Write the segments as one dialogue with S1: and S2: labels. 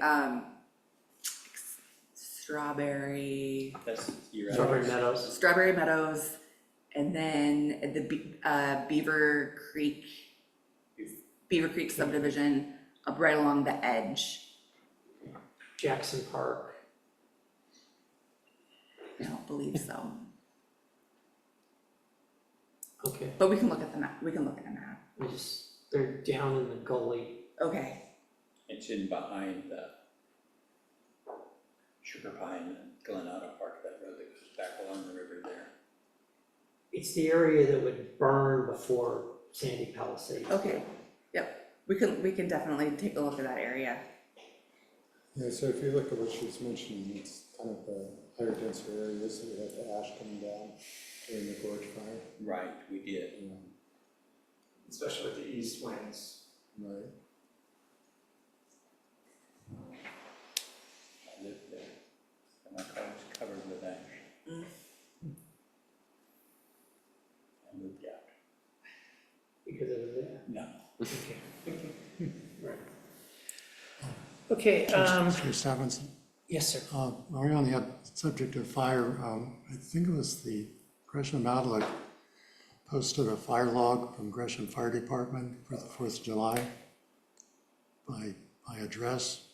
S1: um strawberry,
S2: That's your.
S3: Strawberry Meadows.
S1: Strawberry Meadows, and then the Be- uh Beaver Creek, Beaver Creek subdivision up right along the edge.
S3: Jackson Park.
S1: I don't believe so,
S3: Okay,
S1: but we can look at the map, we can look at the map.
S3: I just, they're down in the gully.
S1: Okay,
S2: It's in behind the Sugar Pine and Glen Auto Park, that road that goes back along the river there.
S3: It's the area that would burn before Sandy Palisades.
S1: okay, yep, we can, we can definitely take a look at that area.
S4: Yeah, so if you look at what she was mentioning, it's kind of the higher density areas that we had the ash coming down during the gorge fire,
S2: Right, we did.
S4: you know,
S5: especially with the east winds.
S4: right?
S2: I lived there. And my car was covered with ash.
S1: Mm.
S2: I moved out.
S3: Because of that.
S2: No.
S6: Okay, um,
S4: Mr. Stebbins,
S6: yes, sir.
S4: uh, while we're on the up- subject of fire, um, I think it was the Gresham Outlook posted a fire log from Gresham Fire Department for the Fourth of July by, by address.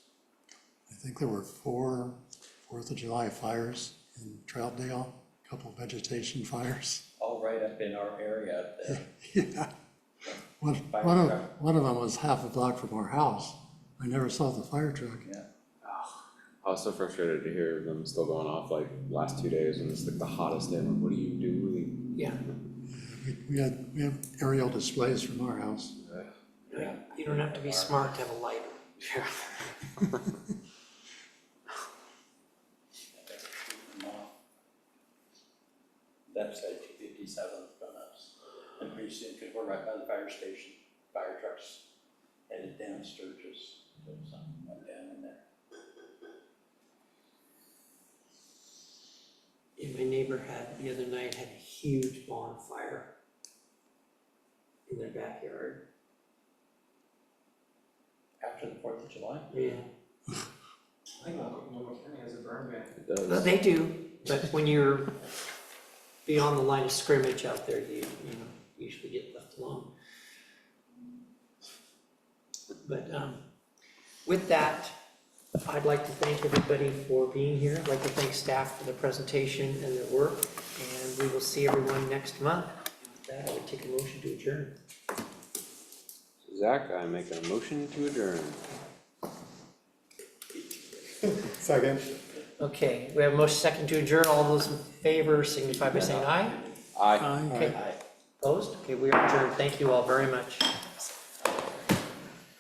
S4: I think there were four Fourth of July fires in Troutdale, a couple vegetation fires.
S2: All right up in our area up there.
S4: Yeah. One,
S2: Fire
S4: one of,
S2: truck.
S4: one of them was half a block from our house. I never saw the fire truck.
S7: I was so frustrated to hear them still going off like last two days when it's like the hottest day. I'm like, what do you do?
S3: Yeah.
S4: We, we had, we have aerial displays from our house.
S2: Yeah.
S3: You don't have to be smart to have a lighter. Yeah.
S2: That's at two fifty-seven from us, and pretty soon, because we're right by the fire station, fire trucks headed down Sturgis, so something went down in there.
S3: And my neighbor had, the other night, had a huge bonfire in their backyard.
S2: After the Fourth of July?
S3: Yeah.
S5: I think Multnomah County has a burn ban.
S7: It does.
S3: Well, They do, but when you're beyond the line of scrimmage out there, you, you know, usually get left alone. But, um, with that, I'd like to thank everybody for being here. I'd like to thank staff for the presentation and their work, and we will see everyone next month. With that, I would take a motion to adjourn.
S7: Zach, I make a motion to adjourn.
S4: Second.
S3: Okay, we have a motion second to adjourn. All those in favor signify by saying aye.
S7: I
S3: Okay, opposed? Okay, we are adjourned. Thank you all very much.